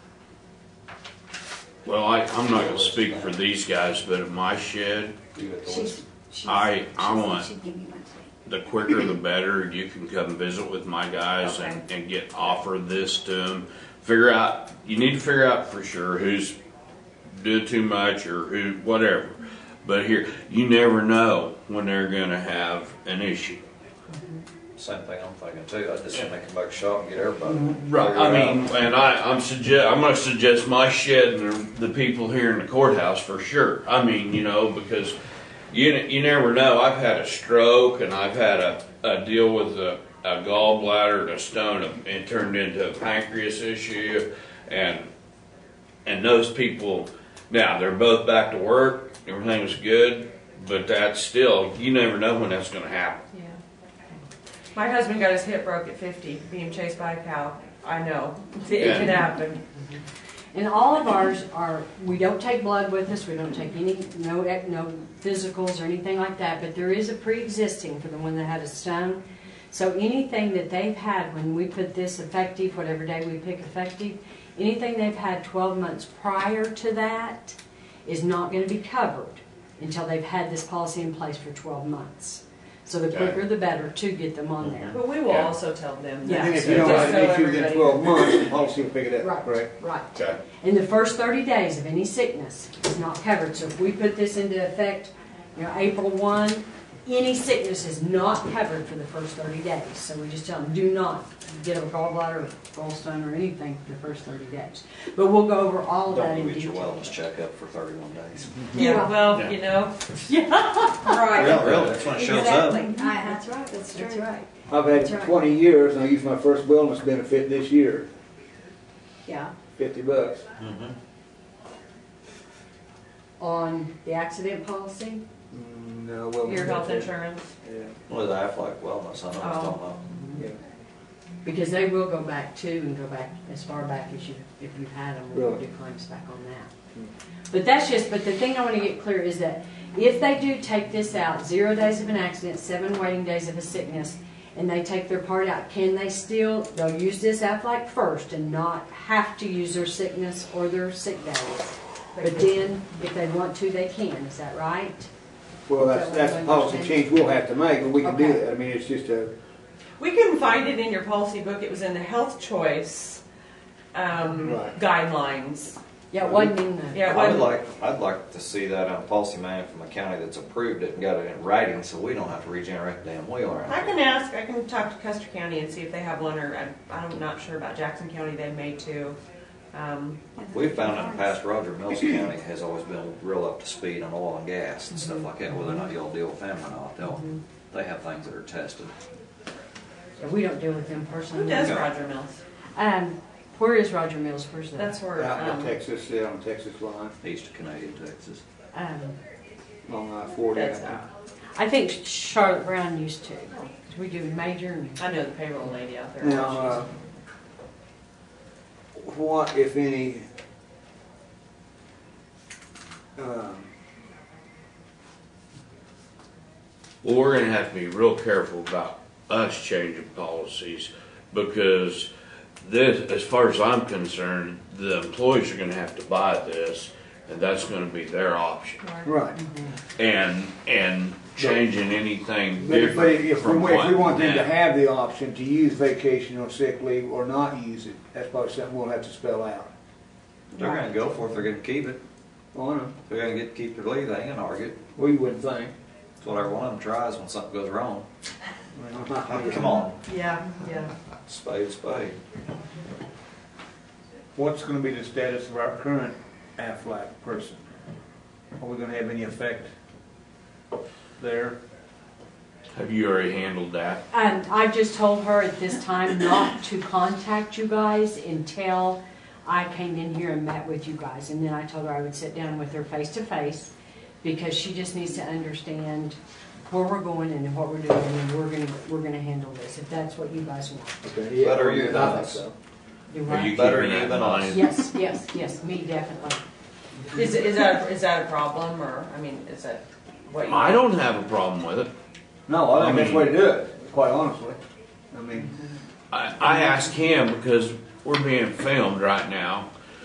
Well, I, I'm not gonna speak for these guys, but in my shed, She's, she's. I- I she said want- she'd give me one today. the quicker the better. You can come visit with my guys and, and get offered this to them. Figure out, you need to figure out for sure who's doing too much or who, whatever. But here, you never know when they're gonna have an issue. Same thing I'm thinking too, I just think they come back shop and get everybody. Mm-hmm. I mean, and I, I'm suggest, I'm gonna suggest my shed and the, the people here in the courthouse for sure. I mean, you know, because you, n- you never know. I've had a stroke and I've had a, a deal with a, a gallbladder and a stone and it turned into a pancreas issue. And, and those people, now they're both back to work, everything was good, but that's still, you never know when that's gonna happen. Yeah. My husband got his hip broke at 50, being chased by a cow. I know. It can Yeah. happen. And all of ours are, we don't take blood with us, we don't take any, no, ec- no physicals or anything like that, but there is a pre-existing for the one that had a stone. So anything that they've had when we put this effective, whatever day we pick effective, anything they've had twelve months prior to that is not gonna be covered until they've had this policy in place for twelve months. So the quicker the better to get them on there. But we will Yeah. also tell them Yeah. that. And if so you don't just have so it within everybody- twelve months, the policy will pick it up, Right, correct? right. Okay. And the first thirty days of any sickness is not covered, so if we put this into effect, you know, April one, any sickness is not covered for the first thirty days, so we just tell them, do not get a gallbladder, gallstone, or anything for the first thirty days. But we'll go over all of that Don't in you get your detail. wellness checkup for thirty-one days. Yeah, Yeah. well, you know. Yeah, Right. really, that's when it shows up. Exactly. I- That's right, that's That's true. right, I've That's had right. twenty years and I used my first wellness benefit this year, yeah, fifty bucks. Mm-hmm. on the accident policy, Mm, No, wellness Your health benefit. insurance. Yeah, With Aflac Wellness, I know I was talking about. yeah. because they will go back too, and go back as far back as you, if you've had them, we'll Really? do claims back on that. Hmm. But that's just, but the thing I wanna get clear is that if they do take this out, zero days of an accident, seven waiting days of a sickness, and they take their part out, can they still, they'll use this Aflac first and not have to use their sickness or their sick days? But then, if they want to, they can, is that right? Well, Is that's, that that's what a I'm policy understanding? change we'll have to make, but we can do Okay. that. I mean, it's just a, We couldn't find it in your policy book. It was in the health choice um, Right. guidelines. Yeah, it wasn't in the, Yeah, I it would wasn't- like, I'd like to see that on a policy man from a county that's approved it and got it in writing, so we don't have to regenerate the damn wheel around I here. can ask, I can talk to Custer County and see if they have one, or I'm, I'm not sure about Jackson County, they may too. Um, We found in the past, Roger Mills County has always been real up to speed on oil and gas and stuff like that, whether or not y'all deal with them or not, they'll, they have things that are tested. yeah, we don't deal with them personally. Who does Yeah. Roger Mills? Um, where is Roger Mills, where's that? That's where, out in um, Texas, down in Texas line, East of Canadian, Texas. Um, on I forty. that's, uh, I I think Charlotte Brown used to. 'cause We do major and I know the payroll lady out there. think. Now, uh, what, if any, um, Well, we're gonna have to be real careful about us changing policies because this, as far as I'm concerned, the employees are gonna have to buy this and that's gonna be their option. right. And, and changing anything But if they, different if we, from if we want what them to now. have the option to use vacation or sick leave or not use it, that's probably something we'll have to spell out. They're gonna go for it, they're gonna keep it, On them, they're gonna get, keep their leave, they ain't gonna argue. well, you wouldn't think. That's what every one of them tries when something goes wrong. I mean, I'm not- Come on, Yeah, yeah. spade, to spade. What's gonna be the status of our current Aflac person? Are we gonna have any effect there? Have you already handled that? Um, I've just told her at this time not to contact you guys until I came in here and met with you guys. And then I told her I would sit down with her face to face because she just needs to understand where we're going and what we're doing and we're gonna, we're gonna handle this, if that's what you guys want. Okay, yeah, Better you I think than us. so. Do Are you what? Better keeping that you in than mind? Yes, yes, yes, me definitely. Is, is that, is that a problem, or, I mean, is that what you? I don't have a problem with it. No, I think that's the way I to do it, quite honestly. I mean, I, I asked him because we're being filmed right now